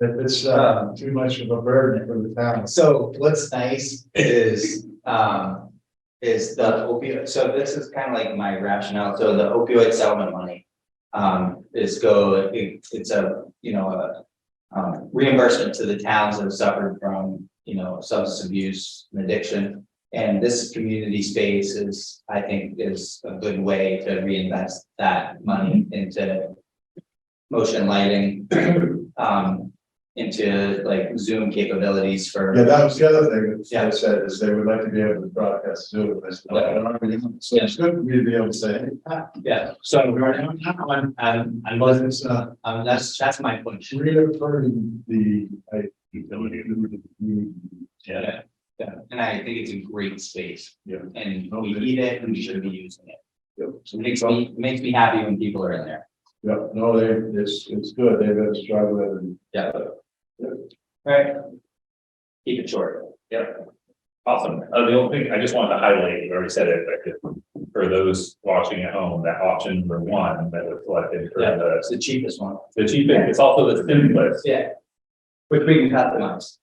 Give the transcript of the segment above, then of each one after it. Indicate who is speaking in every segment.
Speaker 1: That it's, uh, too much of a burden for the town.
Speaker 2: So what's nice is, um, is the opioid, so this is kind of like my rationale, so the opioid settlement money. Um, is go, it- it's a, you know, a. Um, reimbursement to the towns that have suffered from, you know, substance abuse and addiction. And this community space is, I think, is a good way to reinvest that money into. Motion lighting, um, into like Zoom capabilities for.
Speaker 1: Yeah, that was the other thing that
Speaker 2: Yeah.
Speaker 1: they said, is they would like to be able to broadcast Zoom. I said, "No, I don't really know." So it's good for me to be able to say, "Hey, Pat,
Speaker 2: Yeah, so we're now, now I'm, I'm, I wasn't, uh, um, that's, that's my point.
Speaker 1: reaffirming the, uh, I. Utility.
Speaker 2: Yeah. Yeah, and I think it's a great space.
Speaker 1: Yeah.
Speaker 2: And we need it and we should be using it.
Speaker 1: Yep.
Speaker 2: So it makes me, makes me happy when people are in there.
Speaker 1: Yeah, no, they, it's, it's good, they've been struggling.
Speaker 2: Yeah. Right. Keep it short.
Speaker 3: Awesome. Uh, the only thing, I just wanted to highlight, you already said it, but for those watching at home, that option number one that was selected for
Speaker 2: Yeah.
Speaker 3: the,
Speaker 2: That's the cheapest one.
Speaker 3: the cheapest, it's also the simplest.
Speaker 2: Yeah. Which we can customize.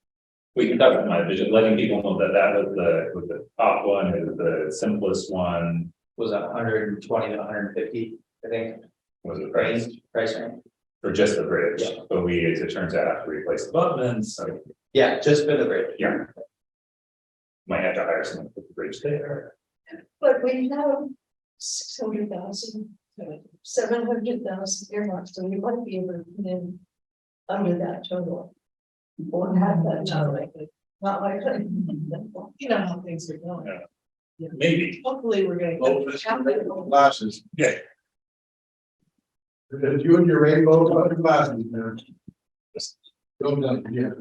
Speaker 3: We can talk about my vision, letting people know that that was the, was the top one, it was the simplest one,
Speaker 2: Was a hundred and twenty to hundred and fifty, I think,
Speaker 3: was the price
Speaker 2: range, price range.
Speaker 3: for just the bridge.
Speaker 2: Yeah.
Speaker 3: But we, as it turns out, have to replace abutments, so
Speaker 2: Yeah, just for the bridge.
Speaker 3: yeah. Might have to hire someone to put the bridge there.
Speaker 4: But we have six hundred thousand, seven hundred thousand earmarked, so we might be able to put in under that total. Or have that total, not likely. You know how things are going.
Speaker 3: Yeah. Maybe.
Speaker 4: Hopefully, we're gonna.
Speaker 1: Well, this Glasses.
Speaker 3: Yeah.
Speaker 1: If you and your rainbow colored glasses, man. Go down, yeah.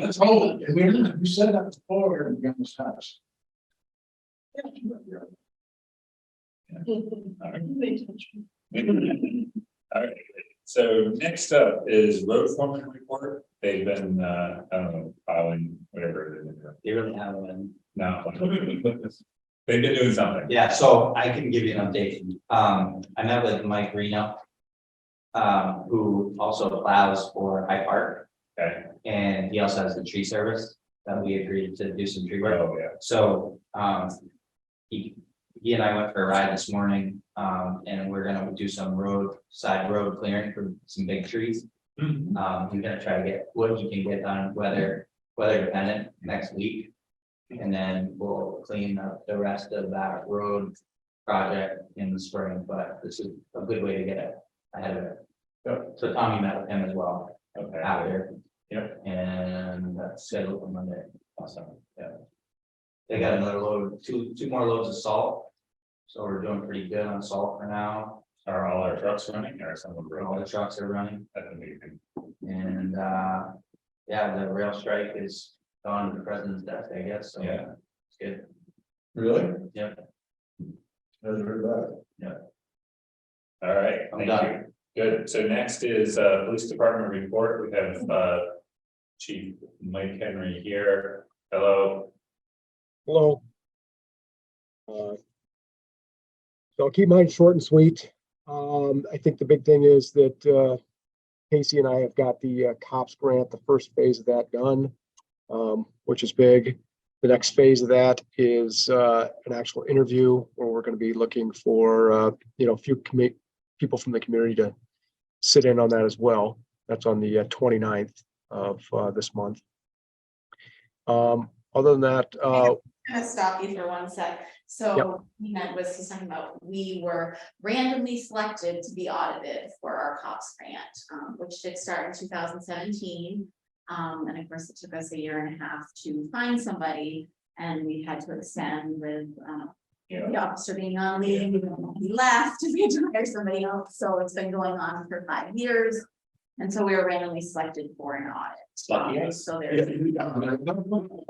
Speaker 1: That's whole, we, you said that before, and you almost had us.
Speaker 3: All right, so next up is road foreman report. They've been, uh, I don't know, filing whatever. they've been doing.
Speaker 2: They really have one.
Speaker 3: No. They've been doing something.
Speaker 2: Yeah, so I can give you an update. Um, I met with Mike Reno. Um, who also plows for High Park
Speaker 3: Okay.
Speaker 2: and he also has the tree service that we agreed to do some tree work.
Speaker 3: Oh, yeah.
Speaker 2: So, um. He, he and I went for a ride this morning, um, and we're gonna do some road, side road clearing for some big trees. Um, we're gonna try to get what you can get done, weather, weather dependent, next week. And then we'll clean up the rest of that road project in the spring, but this is a good way to get it ahead of it.
Speaker 3: Yeah.
Speaker 2: So Tommy met with him as well
Speaker 3: Okay.
Speaker 2: after.
Speaker 3: Yeah.
Speaker 2: And that's scheduled for Monday, also, yeah. They got another load, two, two more loads of salt. So we're doing pretty good on salt for now,
Speaker 3: Are all our trucks running or some of them?
Speaker 2: where all
Speaker 3: broke?
Speaker 2: the trucks are running.
Speaker 3: That's amazing.
Speaker 2: And uh, yeah, the rail strike is on the president's desk, I guess, so.
Speaker 3: Yeah.
Speaker 2: It's good,
Speaker 1: Really?
Speaker 2: yeah,
Speaker 1: Never heard that.
Speaker 3: All right,
Speaker 2: I'm
Speaker 3: thank you.
Speaker 2: done.
Speaker 3: Good. So next is, uh, police department report. We have, uh, Chief Mike Henry here. Hello.
Speaker 5: Hello. Uh, So I'll keep mine short and sweet. Um, I think the big thing is that, uh, Casey and I have got the uh, cops grant, the first phase of that done, um, which is big. The next phase of that is, uh, an actual interview where we're gonna be looking for, uh, you know, a few commi- people from the community to sit in on that as well. That's on the uh, 29th of, uh, this month. Um, other than that, uh,
Speaker 6: gonna stop you for one sec. So he meant was he's talking about, we were randomly selected to be audited for our COPS grant, um, which did start in two thousand seventeen. Um, and of course, it took us a year and a half to find somebody and we had to extend with, um, the officer being on leave, even when he left, we had to hire somebody else. So it's been going on for five years. And so we were randomly selected for an
Speaker 3: Lucky
Speaker 6: audit. Um,
Speaker 3: us.
Speaker 6: So there's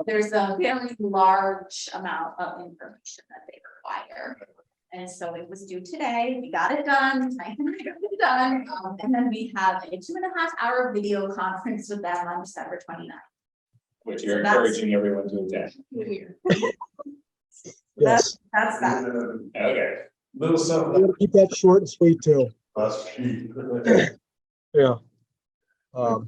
Speaker 6: there's a very large amount of information that they require. And so it was due today, we got it done, Frank and I got it done, um, and then we have a two and a half hour video conference with them on December 29th.
Speaker 3: Which you're
Speaker 6: So that's-
Speaker 3: encouraging everyone to attend.
Speaker 5: yes.
Speaker 6: That's that.
Speaker 3: Okay.
Speaker 1: Little
Speaker 5: I'm
Speaker 1: something.
Speaker 5: gonna keep that short and sweet too,
Speaker 1: Us, gee.
Speaker 5: yeah. Um,